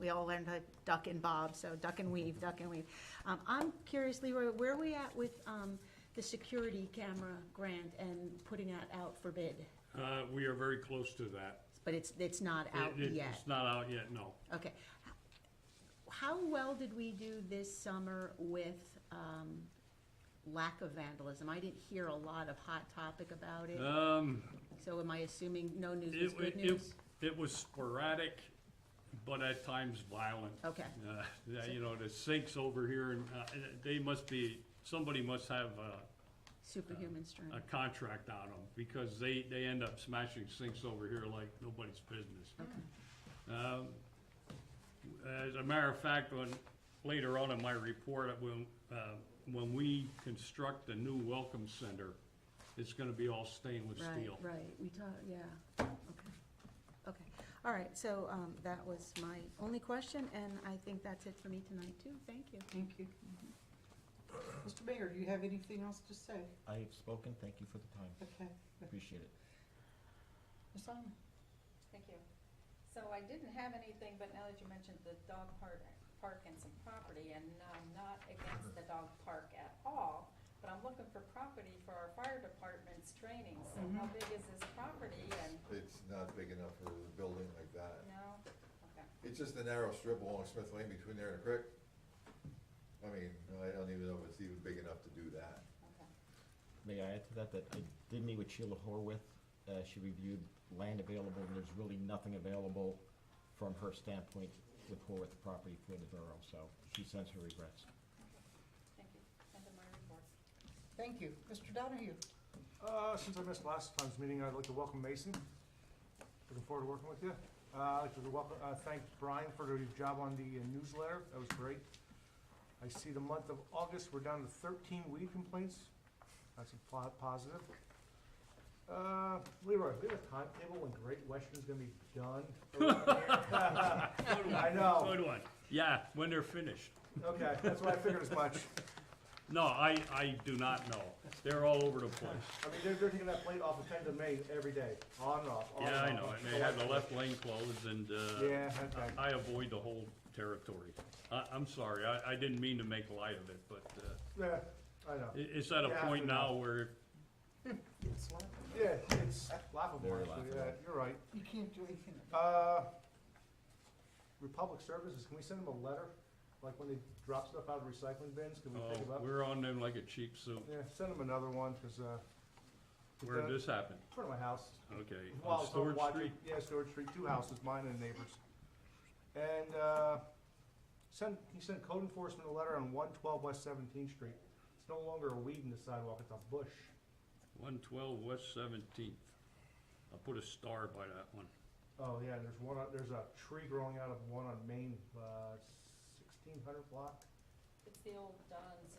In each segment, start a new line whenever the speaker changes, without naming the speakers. they all learned how to duck and bob, so duck and weave, duck and weave. Um, I'm curious, Leroy, where are we at with, um, the security camera grant and putting that out for bid?
Uh, we are very close to that.
But it's, it's not out
It- it-
yet.
It's not out yet, no.
Okay. How well did we do this summer with um, lack of vandalism? I didn't hear a lot of hot topic about it,
Um,
so am I assuming no news is
it,
good
it,
news?
it- it was sporadic, but at times violent.
Okay,
Uh, yeah, you know, the sinks over here and, uh, they must be, somebody must have a,
superhuman strength.
a contract on them because they, they end up smashing sinks over here like nobody's business.
Okay.
Um, As a matter of fact, when, later on in my report, when, uh, when we construct the new welcome center, it's gonna be all stainless
Right,
steel.
right, we talked, yeah, okay. Okay, all right, so um, that was my only question, and I think that's it for me tonight, too. Thank you.
Thank you. Mr. Mayor, do you have anything else to say?
I have spoken, thank you for the time,
Okay.
appreciate it.
Ms. Simon?
Thank you. So I didn't have anything, but now that you mentioned the dog park, park and some property, and I'm not against the dog park at all, but I'm looking for property for our fire department's training, so how big is this property and,
It's not big enough for a building like that.
no? Okay,
It's just a narrow strip along Smith Lane between there and the creek. I mean, I don't even know if it's even big enough to do that.
okay.
May I add to that, that I did meet with Sheila Horwath, uh, she reviewed land available, and there's really nothing available from her standpoint with Horwath property for the borough, so she sends her regrets.
Thank you. End of my report.
Thank you. Mr. Donahue?
Uh, since I missed last time's meeting, I'd like to welcome Mason. Looking forward to working with you. Uh, I'd like to welcome, uh, thank Brian for the job on the uh, newsletter. That was great. I see the month of August, we're down to thirteen weed complaints. That's a po- positive. Uh, Leroy, we have a timetable when Great Western's gonna be done. I know.
Good one. Yeah, when they're finished.
Okay, that's what I figured as much.
No, I, I do not know. They're all over the place.
I mean, they're, they're taking that plate off of ten to May every day, on and off, on and
Yeah,
off.
I know, and they have the left lane closed and, uh,
Yeah, okay.
I avoid the whole territory. I, I'm sorry, I, I didn't mean to make light of it, but, uh,
Yeah, I know.
it, it's at a
You have
point
to
now
know.
where
Yeah, it's laughable,
Very
actually, yeah,
laughable.
you're right.
You can't do anything about
Uh, Republic Services, can we send them a letter? Like when they drop stuff out of recycling bins, can we
Oh,
pick it up?
we're on them like a cheap suit.
Yeah, send them another one, cause, uh,
Where did
done.
this happen?
in front of my house.
Okay,
While
on
it's on
Storage
watching,
Street?
yeah, Storage Street, two houses, mine and neighbors. And, uh, send, he sent code enforcement a letter on one twelve West Seventeenth Street. It's no longer a weed in the sidewalk, it's a bush.
One twelve West Seventeenth. I'll put a star by that one.
Oh, yeah, there's one, on- there's a tree growing out of one on Main, uh, sixteen hundred block.
It's the old Don's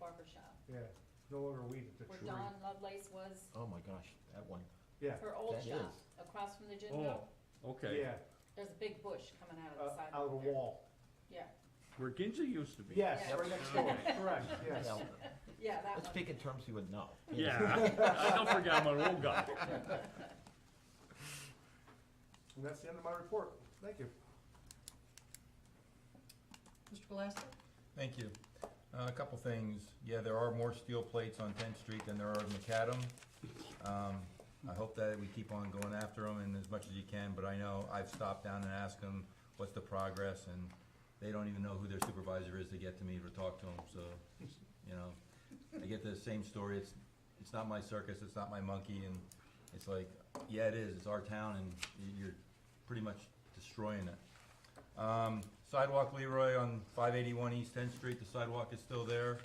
barber shop,
Yeah, it's no longer weed, it's a
where
tree.
Don Lovelace was,
Oh my gosh, that one,
Yeah,
her old
That
shop,
is.
across from the gym.
Oh, okay.
yeah,
There's a big bush coming out
uh,
of the side.
out of a
there.
wall.
Yeah,
Where Ginza used to be.
Yes,
Yeah.
right next door, correct, yes.
now,
yeah, that one.
let's speak in terms you would know.
Yeah, I I don't forget I'm an old guy.
And that's the end of my report, thank you.
Mr. Glassman?
Thank you. Uh, A couple things. Yeah, there are more steel plates on Tenth Street than there are in McAdam. Um, I hope that we keep on going after them and as much as you can, but I know I've stopped down and asked them what's the progress, and they don't even know who their supervisor is to get to me or talk to them, so, you know. I get the same story. It's, it's not my circus, it's not my monkey, and it's like, yeah, it is. It's our town, and y- you're pretty much destroying it. Um, sidewalk Leroy on five eighty-one East Tenth Street, the sidewalk is still there.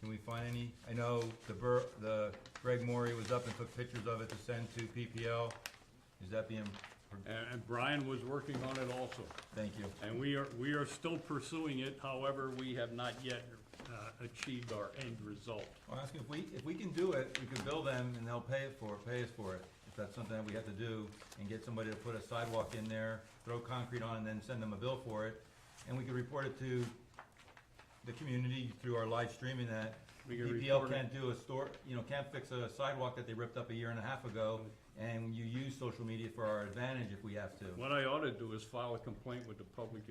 Can we find any? I know the Bur, the Greg Maury was up and took pictures of it to send to PPL. Is that being,
And, and Brian was working on it also.
thank you.
And we are, we are still pursuing it, however, we have not yet, uh, achieved our end result.
I'll ask if we, if we can do it, we can bill them and they'll pay it for, it. pay us for it. If that's something that we have to do and get somebody to put a sidewalk in there, throw concrete on and then send them a bill for it. And we can report it to the community through our live streaming that
We can
DPL
report it.
can't do a store, you know, can't fix a sidewalk that they ripped up a year and a half ago. And you use social media for our advantage if we have to.
What I ought to do is file a complaint with the public